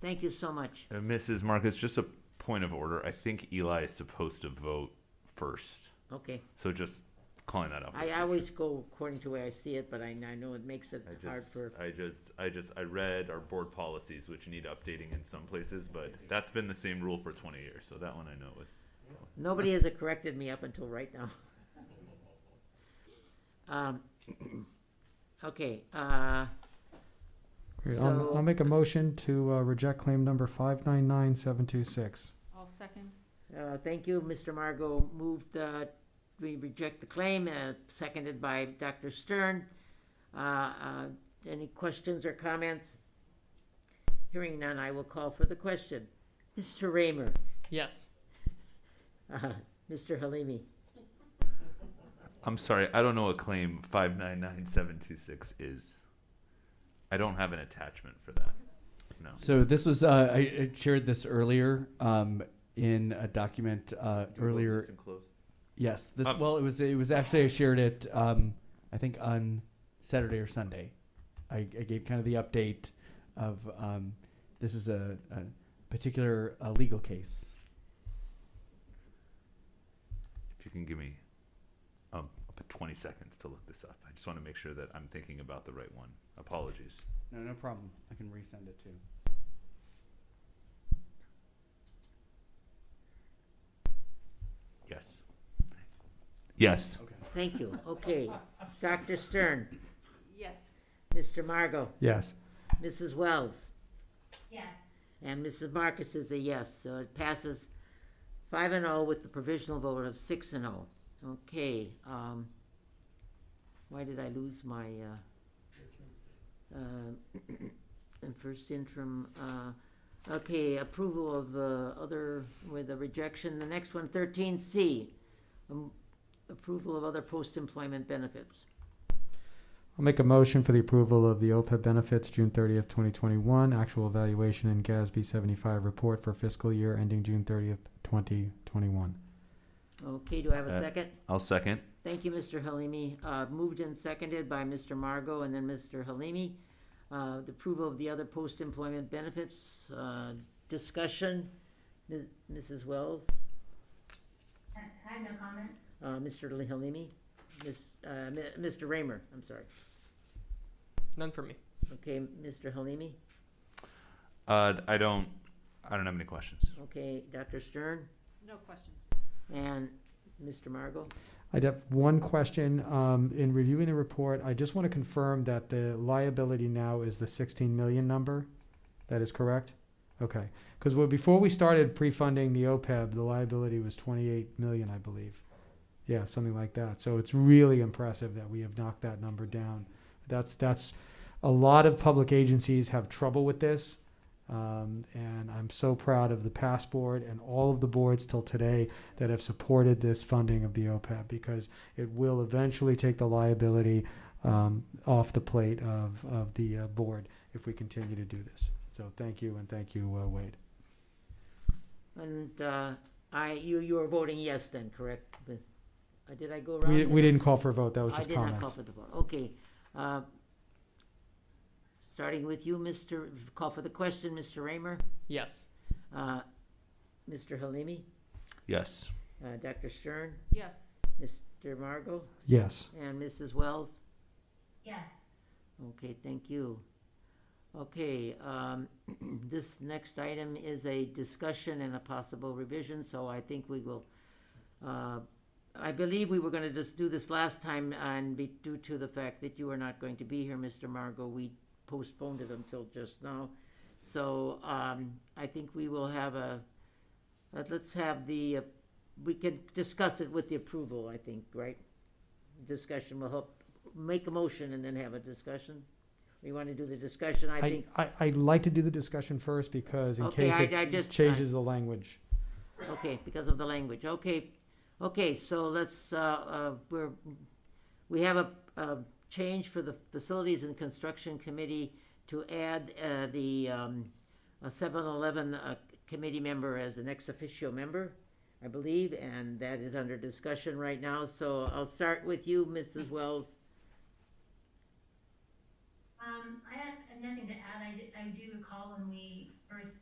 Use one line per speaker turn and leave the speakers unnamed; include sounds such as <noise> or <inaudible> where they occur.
Thank you so much.
Uh, Mrs. Marcus, just a point of order. I think Eli is supposed to vote first.
Okay.
So just calling that out. for
I
the
always go according to where I see it, but I, I know it makes it
I just,
hard
<laughs>
for,
I just, I just, I read our board policies, which need updating in some places, but that's been the same rule for twenty years, so that one I know with.
nobody has corrected me up until right now. <laughs> Um, <clears throat> Okay, uh,
Okay, I'll,
So-
I'll make a motion to uh, reject claim number five nine nine seven two six.
I'll second.
uh, thank you, Mr. Margot moved, uh, we reject the claim, uh, seconded by Dr. Stern. Uh, uh, any questions or comments? Hearing none, I will call for the question. Mr. Raymer,
Yes.
uh, Mr. Halimi,
I'm sorry, I don't know what claim five nine nine seven two six is. I don't have an attachment for that. No.
So this was uh, I, I shared this earlier um, in a document uh, earlier. Yes, this
Um,
well it was it was actually I shared it um, I think on Saturday or Sunday. I, I gave kind of the update of um, this is a, a particular uh, legal case.
If you can give me, um, up to twenty seconds to look this up. I just want to make sure that I'm thinking about the right one. Apologies.
No, no problem. I can resend it too.
Yes. Yes.
Okay.
thank you, okay. Dr. Stern?
Yes.
Mr. Margot,
Yes.
Mrs. Wells,
Yes.
and Mrs. Marcus is a yes, so it passes five and oh with the provisional vote of six and oh. Okay, um, why did I lose my, uh, uh, <coughs> and first interim, uh, okay, approval of, uh, other, with a rejection, the next one, thirteen C. um, Approval of other post-employment benefits.
I'll make a motion for the approval of the OPEB benefits June thirtieth, twenty twenty-one, actual evaluation and GASB seventy-five report for fiscal year ending June thirtieth, twenty twenty-one.
Okay, do I have a
Uh,
second?
I'll second.
Thank you, Mr. Halimi. Uh, Moved and seconded by Mr. Margot and then Mr. Halimi. Uh, The approval of the other post-employment benefits. uh, Discussion, Ms- Mrs. Wells,
I have no comment.
uh, Mr. Li- Halimi, Ms- uh, Mi- Mr. Raymer, I'm sorry.
None for me.
Okay, Mr. Halimi,
Uh, I don't, I don't have any questions.
okay, Dr. Stern,
No questions.
and Mr. Margot.
I have one question. Um, in reviewing the report, I just want to confirm that the liability now is the 16 million number. That is correct? Okay. Because before we started pre-funding the OPEB, the liability was 28 million, I believe. Yeah, something like that. So it's really impressive that we have knocked that number down. That's, that's, a lot of public agencies have trouble with this. Um, and I'm so proud of the past board and all of the boards till today that have supported this funding of the OPEB because it will eventually take the liability um, off the plate of, of the uh, board if we continue to do this. So thank you and thank you, uh, Wade.
And uh, I, you, you were voting yes then, correct? But- uh, Did I go around?
We,
the-
we didn't call for a vote, that was
I
just
did not call
comments.
for the vote, okay. Uh, Starting with you, Mr., call for the question, Mr. Raymer,
Yes.
uh, Mr. Halimi,
Yes.
uh, Dr. Stern,
Yes.
Mr. Margot,
Yes.
and Mrs. Wells.
Yes.
Okay, thank you. Okay, um, <clears throat> this next item is a discussion and a possible revision, so I think we will, uh, I believe we were gonna just do this last time and be, due to the fact that you are not going to be here, Mr. Margot, we postponed it until just now. So, um, I think we will have a, uh, let's have the, uh, we can discuss it with the approval, I think, right? Discussion will help make a motion and then have a discussion? We want to do the discussion, I
I,
think,
I, I'd like to do the discussion first because in
Okay,
case
I- I
it
just-
changes the language.
okay, because of the language, okay. Okay, so let's, uh, uh, we're, we have a, a change for the Facilities and Construction Committee to add, uh, the, um, a seven eleven, uh, committee member as an ex officio member, I believe, and that is under discussion right now, so I'll start with you, Mrs. Wells.
Um, I have nothing to add. I do, I do recall when we
Bruce